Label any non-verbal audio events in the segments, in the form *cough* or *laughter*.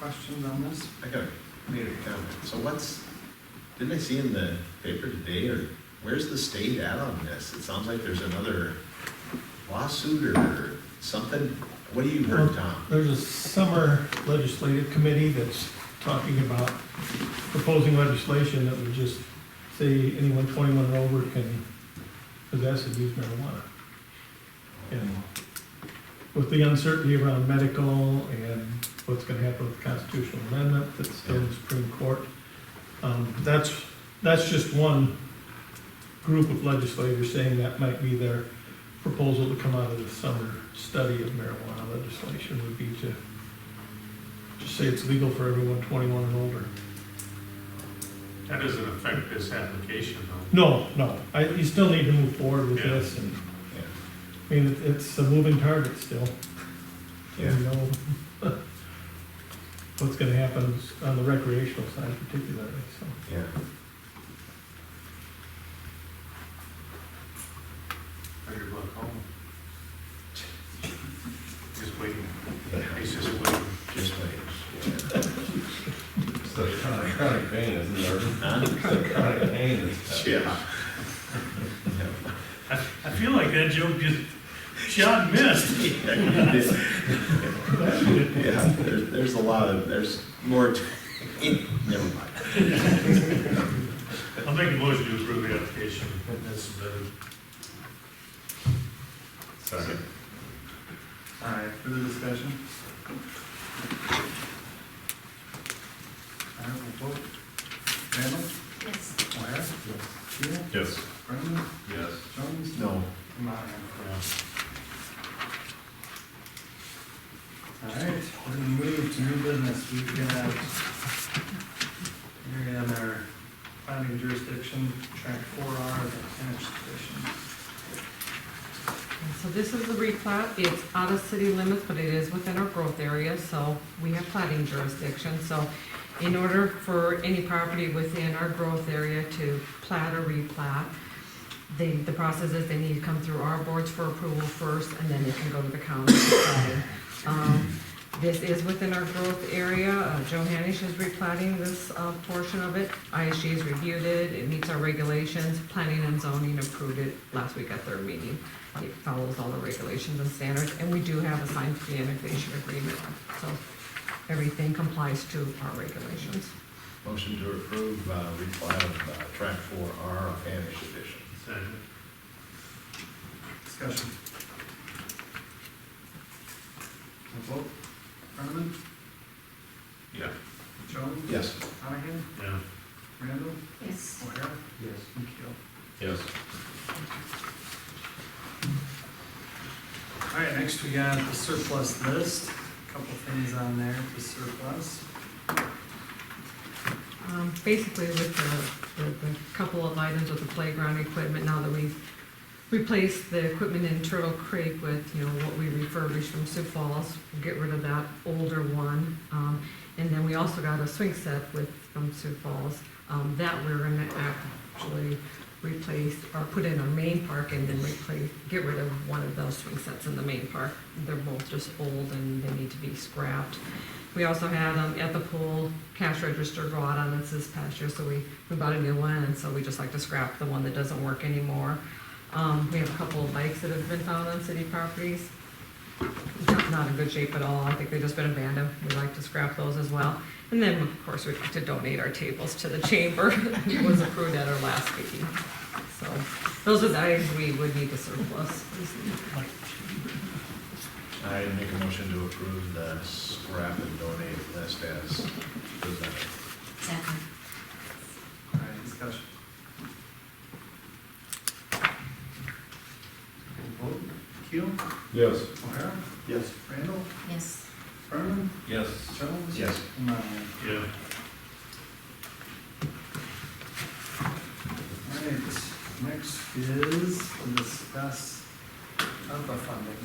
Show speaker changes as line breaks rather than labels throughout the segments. questions on this?
I got a made a comment. So what's, didn't I see in the paper today, or where's the state at on this? It sounds like there's another lawsuit or something. What do you heard, Tom?
There's a summer legislative committee that's talking about proposing legislation that would just say anyone twenty-one and over can possess and use marijuana. And with the uncertainty around medical and what's gonna happen with the constitutional amendment that's still in the Supreme Court, um, that's, that's just one group of legislators saying that might be their proposal to come out of the summer study of marijuana legislation would be to just say it's legal for everyone twenty-one and older.
That doesn't affect this application though.
No, no, I, you still need to move forward with
Yeah.
this, and,
Yeah.
I mean, it- it's a moving target still.
Yeah.
You know *laughs* what's gonna happen on the recreational side particularly, so.
Yeah.
Better book home. Just waiting. He's just waiting.
Just wait.
So it's kind of chronic pain, isn't it?
Huh?
Chronic pain is.
Yeah.
I, I feel like that joke just shot and missed.
Yeah, there's, there's a lot of, there's more, to- never mind.
I'll make a motion to approve the application. That's better.
Sorry.
All right, further discussion? All right, we'll vote. Randall?
Yes.
O'Hara? Keel?
Yes.
Brennan?
Yes.
Jones?
No,
And Monahan. All right, we're gonna move to new business. We've got, we're in our finding jurisdiction, track four R, the tenants petition.
So this is the replat, it's out of city limits, but it is within our growth area, so we have plating jurisdiction, so in order for any property within our growth area to plat or replat, they, the process is they need to come through our boards for approval first, and then they can go to the county for plating. Um, This is within our growth area, Uh, Joe Hanish is replating this, uh, portion of it, ISG has reviewed it, it meets our regulations, planning and zoning approved it last week at their meeting. It follows all the regulations and standards, and we do have a signed pre-annexation agreement, so everything complies to our regulations.
motion to approve, uh, replat of, uh, track four R of Hamish Edition.
Second.
Discussion. We'll vote. Brennan?
Yeah.
Jones?
Yes.
Monahan?
Yeah.
Randall?
Yes.
O'Hara?
Yes.
And Keel.
Yes.
All right, next we got the surplus list, a couple things on there for surplus.
Um, basically with the, the, the couple of items with the playground equipment, now that we've replaced the equipment in Turtle Creek with, you know, what we refurbished from Sioux Falls, we'll get rid of that older one. Um, and then we also got a swing set with, from Sioux Falls, um, that we're gonna actually replace, or put in our main park and then replace, get rid of one of those swing sets in the main park. They're both just old and they need to be scrapped. We also had, um, at the pool, cash register go out on us this past year, so we, we bought a new one, and so we just like to scrap the one that doesn't work anymore. Um, we have a couple of bikes that have been found on city properties. Not, not in good shape at all, I think they've just been abandoned, we like to scrap those as well. And then, of course, we'd like to donate our tables to the chamber, *laughs* it was approved at our last meeting. So, those are the items we would need to surplus.
I make a motion to approve the scrap and donate list as presented.
All right, discussion. We'll vote. Keel?
Yes.
O'Hara?
Yes.
Randall?
Yes.
Brennan?
Yes.
Jones?
Yes.
And Monahan.
Yeah.
All right, next is to discuss ARPA funding.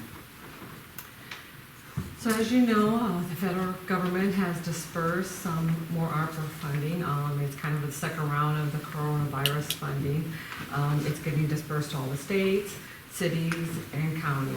So as you know, uh, the federal government has dispersed some more ARPA funding. Um, It's kind of the second round of the coronavirus funding. Um, It's getting dispersed to all the states, cities, and counties.